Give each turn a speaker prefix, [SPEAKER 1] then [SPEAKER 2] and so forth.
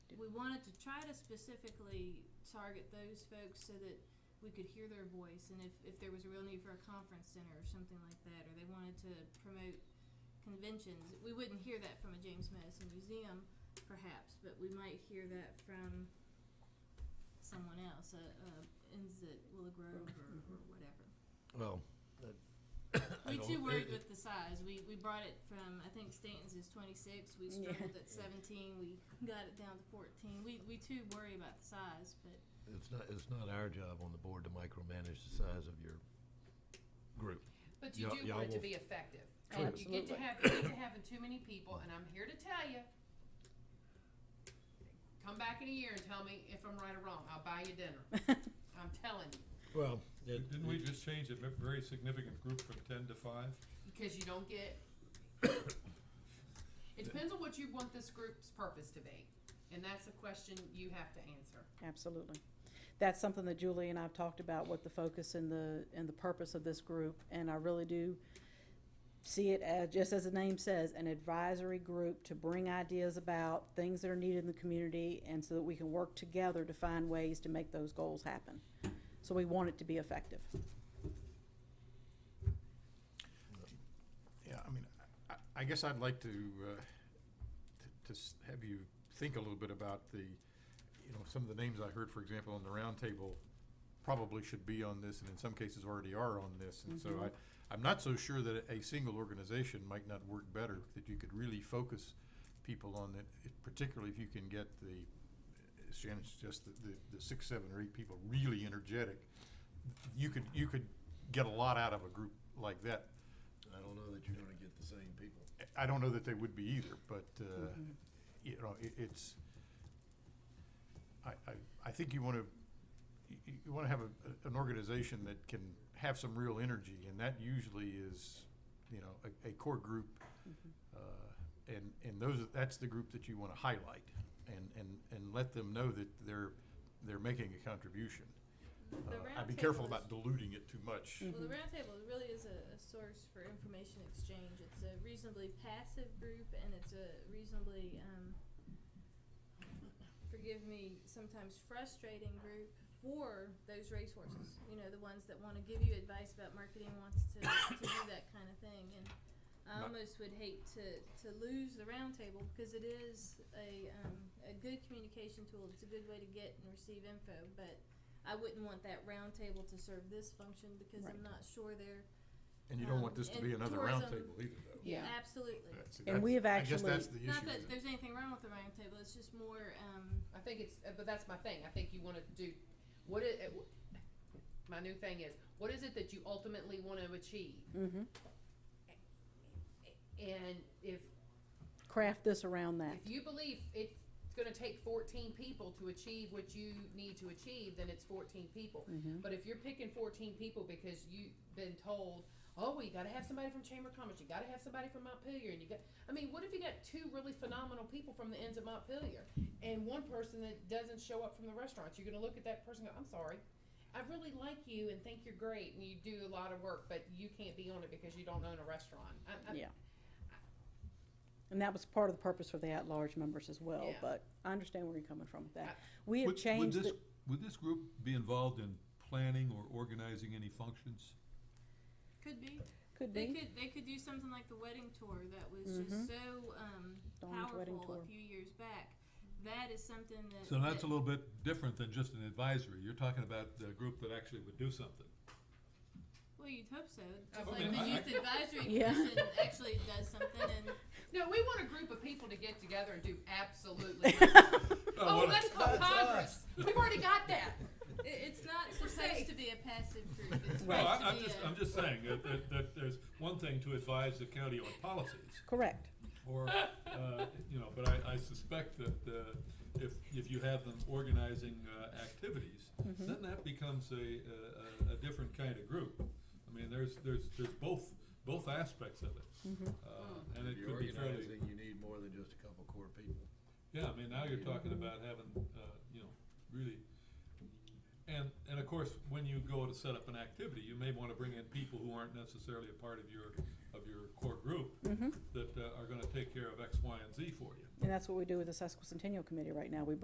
[SPEAKER 1] we wanted to try to specifically target those folks so that we could hear their voice and if, if there was a real need for a conference center or something like that, or they wanted to promote conventions, we wouldn't hear that from a James Madison Museum perhaps, but we might hear that from someone else, uh, uh, ends at Willow Grove or, or whatever.
[SPEAKER 2] Well,
[SPEAKER 1] We
[SPEAKER 2] don't-
[SPEAKER 1] too worried
[SPEAKER 2] it-
[SPEAKER 1] with the size. We we brought it from I think Stanton's is twenty six. We struggled at seventeen. We got it down to fourteen. We we too worry about the size, but
[SPEAKER 2] it's not, it's not our job on the board to micromanage the size of your group.
[SPEAKER 3] But
[SPEAKER 2] Y'all-
[SPEAKER 3] you do
[SPEAKER 2] y'all
[SPEAKER 3] want it to
[SPEAKER 2] will-
[SPEAKER 3] be effective. And you get to have, you get to having too many people, and I'm here to tell you. Come back in a year and tell me if I'm right or wrong. I'll buy you dinner. I'm telling you,
[SPEAKER 2] Well,
[SPEAKER 4] Didn't we just change a ve- very significant group from ten to five?
[SPEAKER 3] because you don't get. It depends on what you want this group's purpose to be, and that's a question you have to answer.
[SPEAKER 5] Absolutely. That's something that Julie and I've talked about, what the focus and the, and the purpose of this group, and I really do see it as, just as the name says, an advisory group to bring ideas about things that are needed in the community, and so that we can work together to find ways to make those goals happen. So we want it to be effective.
[SPEAKER 6] Yeah, I mean, I, I guess I'd like to, uh, t- to s- have you think a little bit about the, you know, some of the names I heard, for example, on the roundtable probably should be on this, and in some cases already are on this. And so I, I'm not so sure that a single organization might not work better, that you could really focus people on it, particularly if you can get the, as Shannon suggests, the, the, the six, seven, or eight people really energetic. You could, you could get a lot out of a group like that.
[SPEAKER 2] I don't know that you're gonna get the same people.
[SPEAKER 6] I don't know that they would be either, but, uh,
[SPEAKER 1] Mm-hmm.
[SPEAKER 6] you know, it, it's, I, I, I think you wanna, you, you wanna have a, an organization that can have some real energy, and that usually is, you know, a, a core group.
[SPEAKER 1] Mm-hmm.
[SPEAKER 6] Uh, And, and those, that's the group that you wanna highlight, and, and, and let them know that they're, they're making a contribution.
[SPEAKER 1] the, the
[SPEAKER 6] Uh,
[SPEAKER 1] round
[SPEAKER 6] I'd be
[SPEAKER 1] table
[SPEAKER 6] careful
[SPEAKER 1] is- Mm.
[SPEAKER 6] about diluting it too much.
[SPEAKER 1] Well, the roundtable really is a, a source for information exchange. It's a reasonably passive group, and it's a reasonably, um, forgive me, sometimes frustrating group for those racehorses. You know, the ones that want to give you advice about marketing, wants to, to do that kind of thing. And I
[SPEAKER 6] Not-
[SPEAKER 1] almost would hate to, to lose the roundtable because it is a, um, a good communication tool. It's a good way to get and receive info, but I wouldn't want that roundtable to serve this function because I'm not sure they're.
[SPEAKER 6] And you don't
[SPEAKER 1] Um,
[SPEAKER 6] want this to
[SPEAKER 1] and
[SPEAKER 6] be another
[SPEAKER 1] tourism-
[SPEAKER 6] roundtable either, though.
[SPEAKER 5] Yeah.
[SPEAKER 1] Absolutely.
[SPEAKER 6] That's-
[SPEAKER 5] And we have
[SPEAKER 6] I guess
[SPEAKER 5] actually-
[SPEAKER 6] that's the issue.
[SPEAKER 1] Not that
[SPEAKER 6] is it?
[SPEAKER 1] there's anything wrong with the roundtable, it's just more, um,
[SPEAKER 3] I think it's, uh, but that's my thing. I think you want to do, what it, it- my new thing is, what is it that you ultimately want to achieve?
[SPEAKER 5] Mhm.
[SPEAKER 3] And if
[SPEAKER 5] Craft this around that.
[SPEAKER 3] If you believe it's gonna take fourteen people to achieve what you need to achieve, then it's fourteen people. But if you're picking fourteen people because you've been told, oh, we gotta have somebody from Chamber of Commerce, you gotta have somebody from Montpelier, and you got, I mean, what if you got two really phenomenal people from the ends of Montpelier? And one person that doesn't show up from the restaurants, you're gonna look at that person and go, I'm sorry. I really like you and think you're great and you do a lot of work, but you can't be on it because you don't own a restaurant. I, I,
[SPEAKER 5] Yeah. And that was part of the purpose for the at-large members as well,
[SPEAKER 3] Yeah.
[SPEAKER 5] but I understand where you're coming from with that.
[SPEAKER 3] I-
[SPEAKER 5] We have
[SPEAKER 4] Would-
[SPEAKER 5] changed
[SPEAKER 4] Would this,
[SPEAKER 5] the,
[SPEAKER 4] would this group be involved in planning or organizing any functions?
[SPEAKER 1] could be.
[SPEAKER 5] could
[SPEAKER 1] They
[SPEAKER 5] be,
[SPEAKER 1] could, they could do something like the wedding tour that was just so, um,
[SPEAKER 5] Dawn's Mm-hmm. wedding
[SPEAKER 1] powerful a
[SPEAKER 5] tour.
[SPEAKER 1] few years back. That is something that.
[SPEAKER 4] So that's a
[SPEAKER 1] that-
[SPEAKER 4] little bit different than just an advisory. You're talking about the group that actually would do something.
[SPEAKER 1] Well, you'd hope so,
[SPEAKER 3] I
[SPEAKER 1] just like
[SPEAKER 4] mean,
[SPEAKER 1] the
[SPEAKER 4] I-
[SPEAKER 1] youth advisory
[SPEAKER 5] Yeah.
[SPEAKER 1] commission actually does something and.
[SPEAKER 3] No, we want a group of people to get together and do absolutely. nothing. oh, let's call Congress. We've already got that.
[SPEAKER 1] It, it's not
[SPEAKER 3] We're
[SPEAKER 1] supposed
[SPEAKER 3] safe.
[SPEAKER 1] to be a passive group. It's
[SPEAKER 4] No,
[SPEAKER 1] supposed
[SPEAKER 4] I-
[SPEAKER 1] to
[SPEAKER 4] I'm
[SPEAKER 1] be
[SPEAKER 4] just,
[SPEAKER 1] a-
[SPEAKER 4] I'm just saying that, that, that there's one thing to advise the county on policies,
[SPEAKER 5] correct.
[SPEAKER 4] or, uh, you know, but I, I suspect that, uh, if, if you have them organizing, uh, activities, then that becomes a, a, a- a different kind of group. I mean, there's, there's, there's both, both aspects of
[SPEAKER 5] Mm-hmm,
[SPEAKER 4] it. Uh, And
[SPEAKER 2] If
[SPEAKER 4] it
[SPEAKER 2] you're
[SPEAKER 4] could be fairly,
[SPEAKER 2] organizing, you need more than just a couple core people.
[SPEAKER 4] yeah, I mean, now you're talking about having, uh, you know, really, and, and of course, when you go to set up an activity, you may wanna bring in people who aren't necessarily a part of your, of your core group,
[SPEAKER 5] mm-hmm.
[SPEAKER 4] that uh, are gonna take care of X, Y, and Z for you.
[SPEAKER 5] And that's what we do with the sesquicentennial committee right now. We